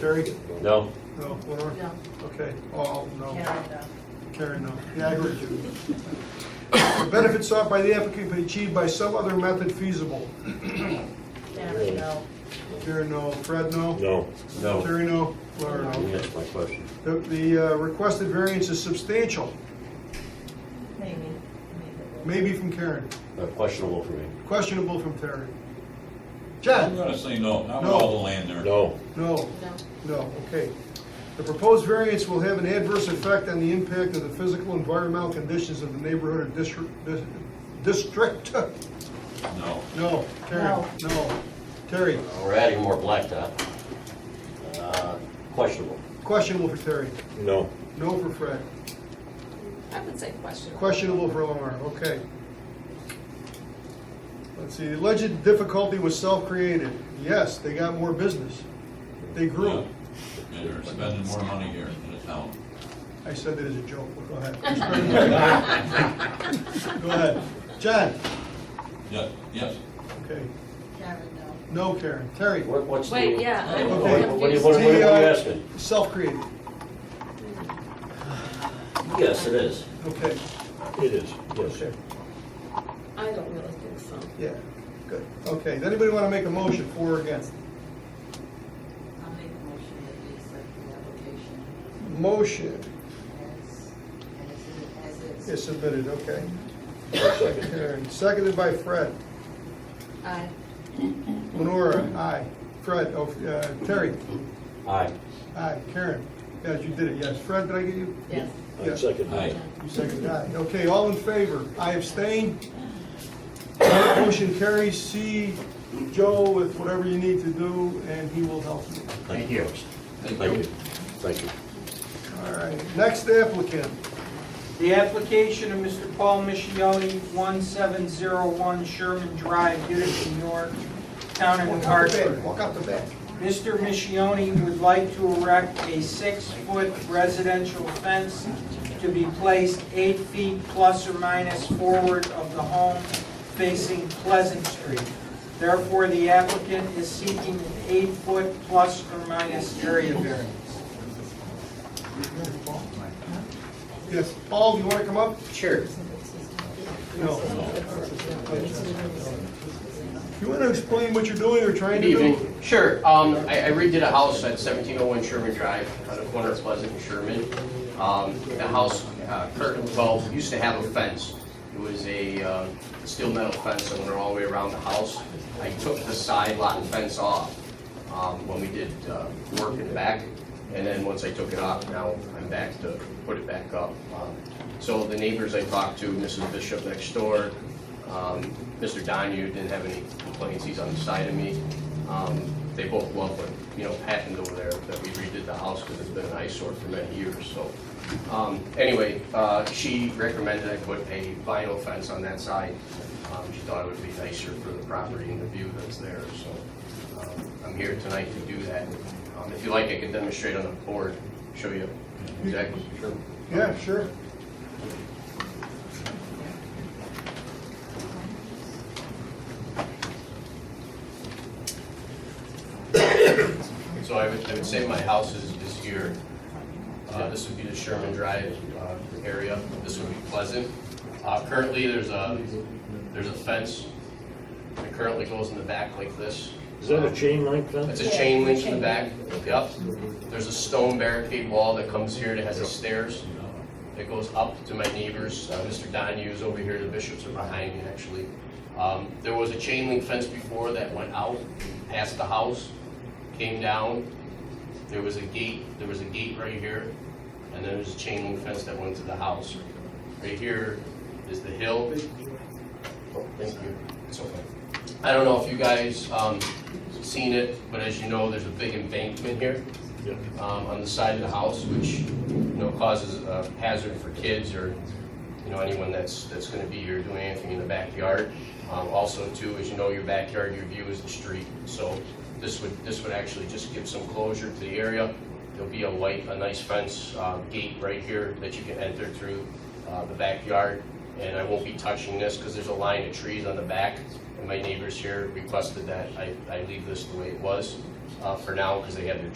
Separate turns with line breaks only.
Terry?
No,
No, Laura?
No.
Okay, all, no.
Canada.
Karen, no. Yeah, I heard you. The benefits sought by the applicant may be achieved by some other method feasible.
Canada, no.
Karen, no. Fred, no?
no, no.
Terry, no? Laura,
You
no?
answered my question.
The, the uh, requested variance is substantial,
Maybe.
maybe from Karen,
Uh, Questionable for me.
questionable from Terry.
I'm
Jen?
gonna say no, not with
No.
all the land there.
No,
No.
No.
No, okay. The proposed variance will have an adverse effect on the impact of the physical environmental conditions of the neighborhood or district, dis- district.
No.
No, Terry,
No.
no. Terry,
We're adding more blacktop. Uh, Questionable.
questionable for Terry,
no,
no for Fred,
I would say question.
questionable for Lamar, okay. Let's see, alleged difficulty was self-created. Yes, they got more business. They grew.
Yeah, They're spending more money here in the town.
I said that as a joke, but go ahead. Go ahead. John?
Yeah, yes,
Okay.
Canada, no.
No, Karen. Terry,
What- What's the?
Wait, yeah, I'm
What
Okay.
what- what are you
confused.
what are you asking?
self-created.
Yes, it is.
Okay,
it is, yes.
okay,
I don't really think so.
yeah, good. Okay, does anybody want to make a motion for or against?
I'll make a motion that we accept the application
Motion
as, as it, as
is submitted, okay.
One second.
Karen, seconded by Fred.
Aye.
Lenora, aye. Fred, oh, uh, Terry,
Aye.
aye. Karen, yes, you did it, yes. Fred, did I get you?
Yes.
I second
aye,
that.
You seconded, aye. Okay, all in favor? I abstain. Motion carries. See Joe with whatever you need to do, and he will help you.
Thank you. Thank you, thank you.
All right, next applicant.
The application of Mr. Paul Michiotti, 1701 Sherman Drive, Utica, New York, Town
Walk out
and
the
Hartford.
back, Walk out the back.
Mr. Michioni would like to erect a six-foot residential fence to be placed eight feet plus or minus forward of the home facing Pleasant Street. Therefore, the applicant is seeking an eight-foot plus or minus area variance.
Yes, Paul, do you want to come up?
Sure.
No. You want to explain what you're doing or trying
Good
to do?
evening. Sure, um, I I redid a house at seventeen oh one Sherman Drive on the corner of Pleasant and Sherman. Um, the house, uh, currently, well, used to have a fence. It was a, uh, steel metal fence that went all the way around the house. I took the side lot fence off, um, when we did, uh, work in the back. And then once I took it off, now I'm back to put it back up. Um, So the neighbors I talked to, Mrs. Bishop next door, um, Mr. Donu didn't have any complaints, he's on the side of me. Um, They both love what, you know, happened over there, that we redid the house because it's been an eyesore for many years, so. Um, Anyway, uh, she recommended I put a vinyl fence on that side. Um, She thought it would be nicer for the property and the view that's there, so um, I'm here tonight to do that. Um, If you like, I can demonstrate on the board, show you exactly.
Yeah, sure.
So I would, I would say my house is, is here. Uh, this would be the Sherman Drive, uh, area, this would be Pleasant. Uh, currently, there's a, there's a fence that currently goes in the back like this.
Is that a chain link fence?
It's a chain link in the back, yep. There's a stone barricade wall that comes here that has a stairs that goes up to my neighbors. Uh, Mr. Donahue is over here, the bishops are behind me, actually. Um, There was a chain link fence before that went out past the house, came down. There was a gate, there was a gate right here, and then there's a chain link fence that went to the house. Right here is the hill. Oh, Thank you, it's okay. I don't know if you guys um, seen it, but as you know, there's a big embankment here
Yeah.
um, on the side of the house, which, you know, causes a hazard for kids or, you know, anyone that's, that's gonna be here doing anything in the backyard. Um, Also too, as you know, your backyard, your view is the street, so this would, this would actually just give some closure to the area. There'll be a white, a nice fence uh, gate right here that you can enter through uh, the backyard. And I won't be touching this because there's a line of trees on the back, and my neighbors here requested that I, I leave this the way it was uh, for now because they had their